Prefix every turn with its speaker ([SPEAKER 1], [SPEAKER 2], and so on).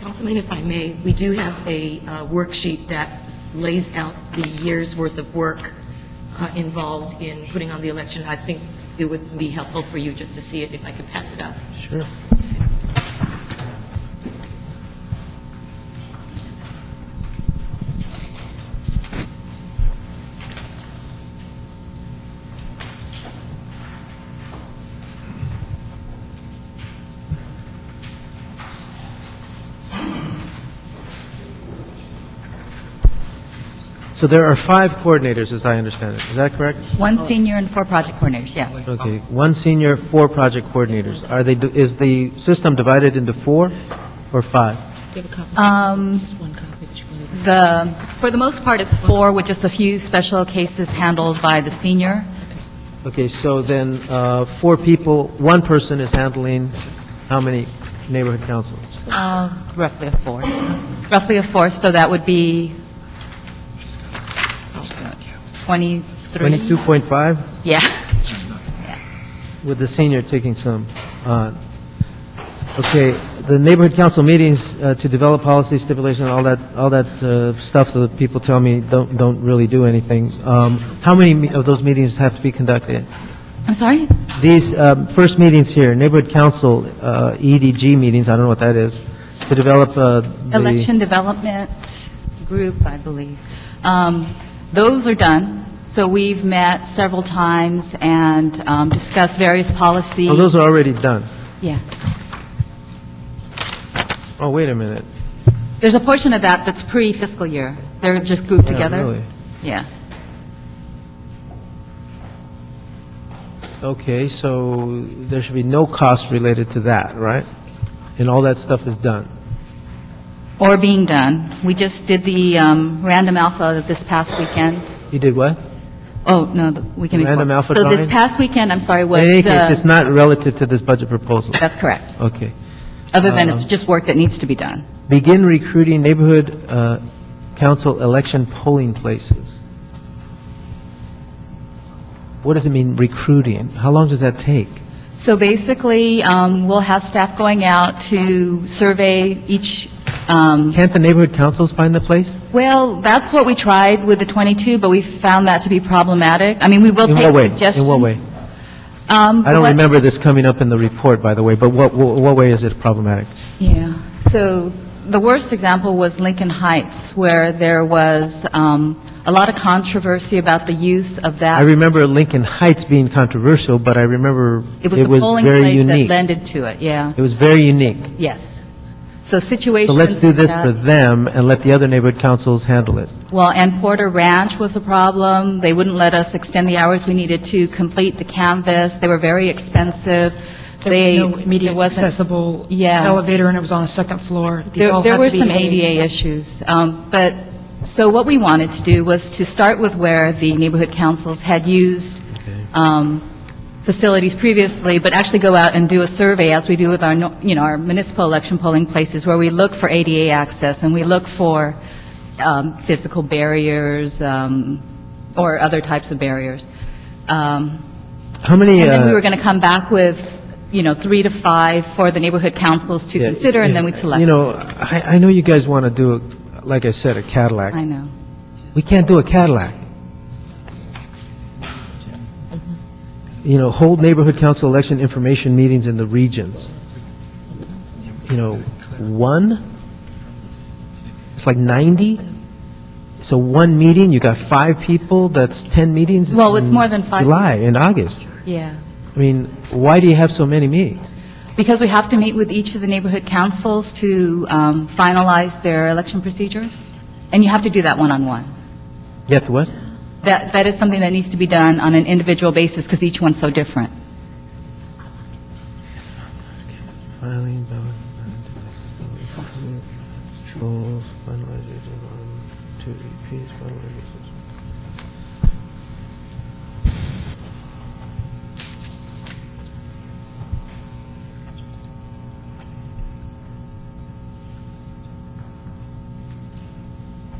[SPEAKER 1] Councilman, if I may, we do have a uh, worksheet that lays out the year's worth of work uh, involved in putting on the election. I think it would be helpful for you just to see it, if I could pass it out.
[SPEAKER 2] Sure. So there are five coordinators, as I understand it. Is that correct?
[SPEAKER 3] One senior and four project coordinators, yeah.
[SPEAKER 2] Okay, one senior, four project coordinators. Are they, is the system divided into four or five?
[SPEAKER 3] Um, The, for the most part, it's four, with just a few special cases handled by the senior.
[SPEAKER 2] Okay, so then, uh, four people, one person is handling how many neighborhood councils?
[SPEAKER 3] Uh, Roughly a four. Roughly a four, so that would be 23?
[SPEAKER 2] 22.5,
[SPEAKER 3] Yeah.
[SPEAKER 2] with the senior taking some on. Okay, the neighborhood council meetings uh, to develop policy stipulation, all that, all that uh, stuff that people tell me don't, don't really do anything. Um, How many me- of those meetings have to be conducted?
[SPEAKER 3] I'm sorry?
[SPEAKER 2] These um, first meetings here, neighborhood council, uh, EDG meetings, I don't know what that is, to develop uh, the...
[SPEAKER 3] Election Development Group, I believe. Um, Those are done, so we've met several times and um, discussed various policies.
[SPEAKER 2] Oh, those are already done.
[SPEAKER 3] Yeah.
[SPEAKER 2] Oh, wait a minute.
[SPEAKER 3] There's a portion of that that's pre-fiscal year. They're just grouped
[SPEAKER 2] Yeah,
[SPEAKER 3] together.
[SPEAKER 2] really.
[SPEAKER 3] Yeah.
[SPEAKER 2] Okay, so there should be no cost related to that, right? And all that stuff is done.
[SPEAKER 3] Or being done. We just did the um, random alpha this past weekend.
[SPEAKER 2] You did what?
[SPEAKER 3] Oh, no, the weekend before.
[SPEAKER 2] Random alpha
[SPEAKER 3] So
[SPEAKER 2] drawing?
[SPEAKER 3] this past weekend, I'm sorry, was...
[SPEAKER 2] In any
[SPEAKER 3] uh,
[SPEAKER 2] case, it's not relative to this budget proposal.
[SPEAKER 3] That's correct.
[SPEAKER 2] Okay.
[SPEAKER 3] Other than it's
[SPEAKER 2] Um,
[SPEAKER 3] just work that needs to be done.
[SPEAKER 2] Begin recruiting neighborhood uh, council election polling places. What does it mean, recruiting? How long does that take?
[SPEAKER 3] So basically, um, we'll have staff going out to survey each, um,
[SPEAKER 2] Can't the neighborhood councils find the place?
[SPEAKER 3] well, that's what we tried with the 22, but we found that to be problematic. I mean, we will
[SPEAKER 2] In
[SPEAKER 3] take
[SPEAKER 2] what way?
[SPEAKER 3] suggestions.
[SPEAKER 2] In
[SPEAKER 3] Um,
[SPEAKER 2] what way? I don't remember this coming up in the report, by the way, but what, what what way is it problematic?
[SPEAKER 3] Yeah, so the worst example was Lincoln Heights, where there was um, a lot of controversy about the use of
[SPEAKER 2] I
[SPEAKER 3] that.
[SPEAKER 2] remember Lincoln Heights being controversial, but I remember
[SPEAKER 3] It was the
[SPEAKER 2] it was
[SPEAKER 3] polling
[SPEAKER 2] very
[SPEAKER 3] place that
[SPEAKER 2] unique.
[SPEAKER 3] lended to it, yeah,
[SPEAKER 2] It was very unique.
[SPEAKER 3] yes. So situations.
[SPEAKER 2] So let's do
[SPEAKER 3] like
[SPEAKER 2] this
[SPEAKER 3] that-
[SPEAKER 2] for them and let the other neighborhood councils handle it.
[SPEAKER 3] Well, and Porter Ranch was a problem. They wouldn't let us extend the hours we needed to complete the canvas. They were very expensive. They,
[SPEAKER 4] There was no
[SPEAKER 3] it
[SPEAKER 4] immediate
[SPEAKER 3] wasn't
[SPEAKER 4] accessible
[SPEAKER 3] Yeah.
[SPEAKER 4] elevator, and it was on a second floor. They
[SPEAKER 3] There
[SPEAKER 4] all
[SPEAKER 3] there
[SPEAKER 4] had
[SPEAKER 3] were
[SPEAKER 4] to be
[SPEAKER 3] some ADA issues, um, but, so what we wanted to do was to start with where the neighborhood councils had used um, facilities previously, but actually go out and do a survey, as we do with our, no- you know, our municipal election polling places, where we look for ADA access, and we look for um, physical barriers um, or other types of barriers. Um,
[SPEAKER 2] How many,
[SPEAKER 3] and then we
[SPEAKER 2] uh,
[SPEAKER 3] were going to come back with, you know, three to five for the neighborhood councils to
[SPEAKER 2] Yeah,
[SPEAKER 3] consider, and then
[SPEAKER 2] yeah.
[SPEAKER 3] we'd select.
[SPEAKER 2] You know, I, I know you guys want to do, like I said, a
[SPEAKER 3] I
[SPEAKER 2] Cadillac.
[SPEAKER 3] know.
[SPEAKER 2] We can't do a Cadillac. You know, hold neighborhood council election information meetings in the regions. You know, one? It's like 90? So one meeting, you got five people, that's 10 meetings?
[SPEAKER 3] Well, it's
[SPEAKER 2] in
[SPEAKER 3] more than five.
[SPEAKER 2] July and August.
[SPEAKER 3] Yeah,
[SPEAKER 2] I mean, why do you have so many meetings?
[SPEAKER 3] because we have to meet with each of the neighborhood councils to um, finalize their election procedures, and you have to do that one-on-one.
[SPEAKER 2] You have to what?
[SPEAKER 3] That, that is something that needs to be done on an individual basis, because each one's so different.
[SPEAKER 2] Filing, ballot, ballot, control, E finalization, um, to increase finalization.